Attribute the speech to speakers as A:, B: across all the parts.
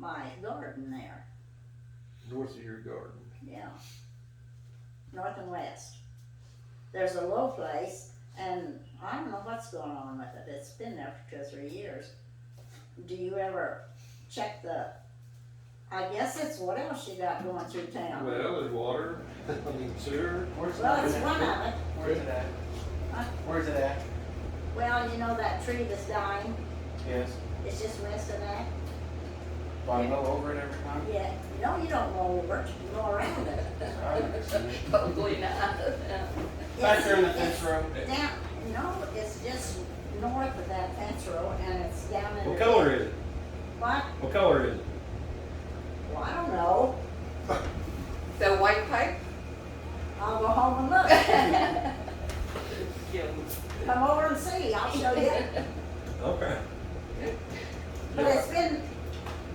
A: by his garden there,
B: north of your garden.
A: yeah. North and west. There's a low place, and I don't know what's going on with it, it's been there for two or three years. Do you ever check the, I guess it's what else you got going through town?
B: Well, there's water, I mean sewer.
C: Where's it
A: Well, it's one
C: at?
A: of it,
C: Where's it at?
A: Huh?
C: Where's it at?
A: well, you know that tree that's dying,
C: Yes.
A: it's just missing that?
C: Do I mow over it every time?
A: Yeah, no, you don't mow over it, you mow around it.
D: Probably not.
C: Back there in the
A: It's-
C: fence row.
A: it's Down, no, it's just north of that fence row and it's down in.
E: What
A: the-
E: color is it?
A: What?
E: What color is it?
A: Well, I don't know.
D: The white pipe?
A: I'll go home and
D: Yeah.
A: look. Come over and see, I'll show you.
E: Okay.
A: But it's been,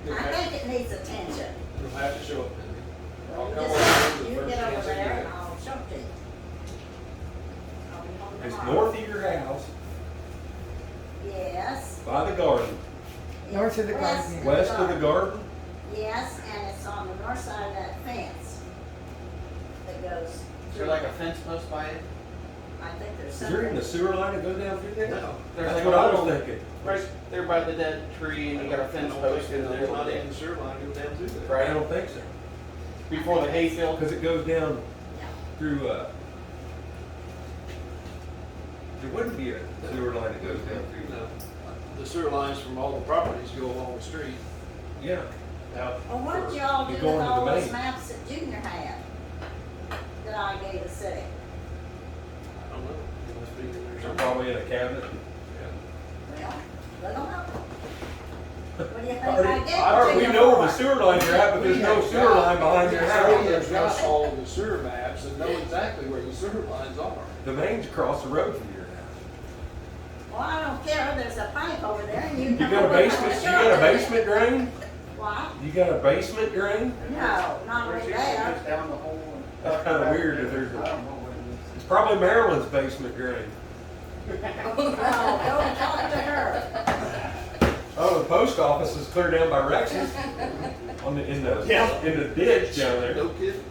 B: You'll
A: I
B: have,
A: think it needs attention.
B: you'll have to show up. I'll
A: You
B: come
A: just-
B: over the
A: You
B: first
A: get over
B: chance I
A: there
B: get.
A: and I'll show it to you. I'll be home
E: It's
A: tomorrow.
E: north of your house,
A: Yes.
E: by the garden,
F: North of the
A: West
F: garden.
E: west of the garden.
A: Yes, and it's on the north side of that fence that goes.
C: Is there like a fence post by it?
A: I think there's
E: Is there
A: something.
E: even a sewer line that goes down through there?
B: No.
C: There's like
E: That's
C: a
E: what I
C: little,
E: was thinking.
C: right there by the dead tree and you got a fence post in
B: There's not
C: there.
B: even a sewer line go down through there.
E: I
C: Right,
E: don't think so.
C: before the hayfield.
E: Because it goes down
A: Yeah.
E: through, uh, there wouldn't be a sewer line that goes down
B: You
E: through.
B: know, The sewer lines from all the properties go along the street.
E: Yeah.
B: Now,
A: Well, what did y'all do with
E: You're going to
A: all
E: the
A: those
E: bank.
A: maps that Junior had? That I gave the city?
B: I don't know, it must be in there
E: They're
B: somewhere.
E: probably in a cabinet.
A: Well, let them know. What do you think
E: Already-
A: I gave
E: I already-
A: Junior
E: we know
A: for?
E: where the sewer lines are at, but there's no sewer line behind your
B: So
E: house.
B: There's just all the sewer maps and know exactly where the sewer lines are.
E: The main's across the road from your house.
A: Well, I don't care, there's a pipe over there and you.
E: You
A: can
E: got a
A: go in
E: basement,
A: and
E: you got a
A: show it.
E: basement drain?
A: Why?
E: You got a basement drain?
A: No, not
C: Where
A: right
C: she
A: there.
C: goes down the hole and-
E: That's kinda weird that there's a-
C: I don't know what
E: It's probably Maryland's basement drain.
A: No, go talk to her.
E: Oh, the post office is clear down by Rex's. On the, in the,
B: Yeah.
E: in the ditch down there.
B: No kidding,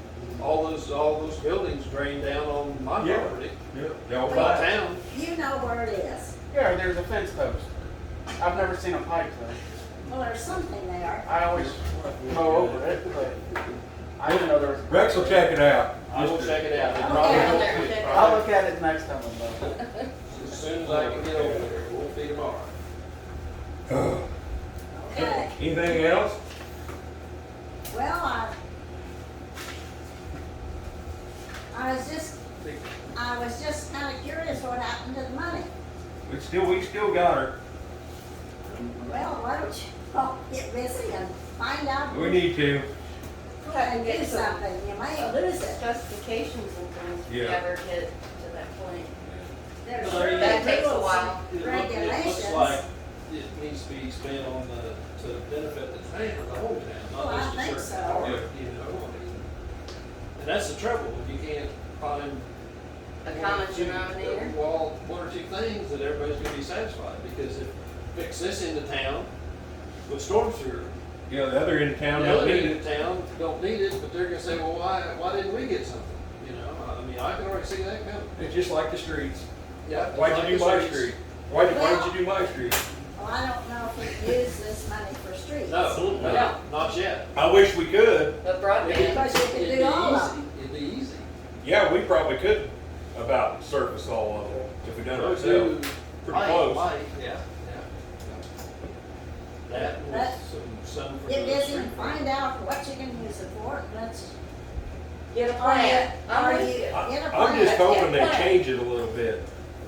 B: all those, all those buildings drain down on my
E: Yeah.
B: property,
E: Yeah, y'all
B: my
E: buy it.
B: town.
A: You know where it is.
C: it is. Yeah, there's a fence post. I've never seen a pipe though.
A: Well, there's something there.
C: I always mow over it, but I didn't know there was.
E: Rex will check it out.
B: I will check it out. It probably
A: Okay,
B: won't
D: there
B: fit.
D: we go.
C: I'll look at it next time I'm done.
B: As soon as I can get over there, it won't be tomorrow.
A: Okay.
E: uh, Anything else?
A: Well, I, I was just, I was just kinda curious what happened to the money.
E: We still, we still got her.
A: Well, why don't you all get busy and find out
E: We need to.
A: and do something, you may lose it.
D: Justifications and things
E: Yeah.
D: never get to that point.
A: There's
B: Well,
A: sure
B: there you go.
D: That takes a
A: rules.
D: while.
B: It look- It
A: Regulations.
B: looks like it needs to be spent on the, to benefit the town, the whole town,
A: Well, I
B: not just
A: think
B: a certain
A: so.
B: part,
E: Yeah.
B: you know? I mean, And that's the trouble, if you can't find.
D: A
B: one or
D: common
B: two- uh,
D: denominator.
B: Well, one or two things that everybody's gonna be satisfied, because if fix this into town with storm sewer,
E: You know, the other end of town
B: the
E: don't
B: other
E: need
B: end
E: it.
B: of town don't need it, but they're gonna say, well, why, why didn't we get something? You know, I mean, I can already see that coming.
E: It's just like the streets.
B: Yeah,
E: Why'd you do my street? Why'd, you- why'd you do my street?
A: Well, I don't know if we use this money for streets.
B: No, no, not yet.
E: I wish we could.
D: The broadband.
A: Because you can do all of them.
B: It'd be easy.
E: Yeah, we probably could about surface all of it if we done it ourselves. Pretty
B: Light,
E: close.
B: light, yeah, yeah. That
A: But-
B: was some, some for
A: Get
B: the
A: busy
B: street.
A: and find out what you can use it for, and let's.
D: Get a
A: Are you,
D: plan.
A: are
D: I'm
A: you,
D: with you.
A: get a
E: I-
A: plan.
E: I'm just hoping they
D: Yeah.
E: change it a little bit.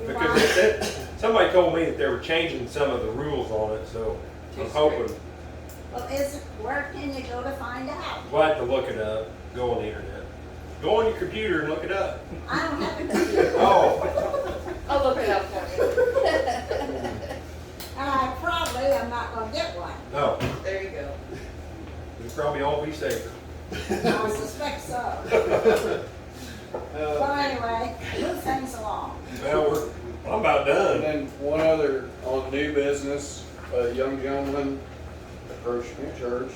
E: Because it- that, somebody told me that they were changing some of the rules on it, so I'm
D: Too
E: hoping.
A: Well, is, where can you go to find out?
E: We'll have to look it up, go on the internet. Go on your computer and look it up.
A: I don't have a computer,
E: Oh,
D: I'll look it up for
A: and I probably am not gonna get one.
E: no,
D: you. There you go.
E: we'd probably all be safer.
A: I suspect so.
B: Uh,
A: Well, anyway, move things along.
E: Well, we're, I'm about
G: And
E: done.
G: then one other, on new business, a young gentleman approached my church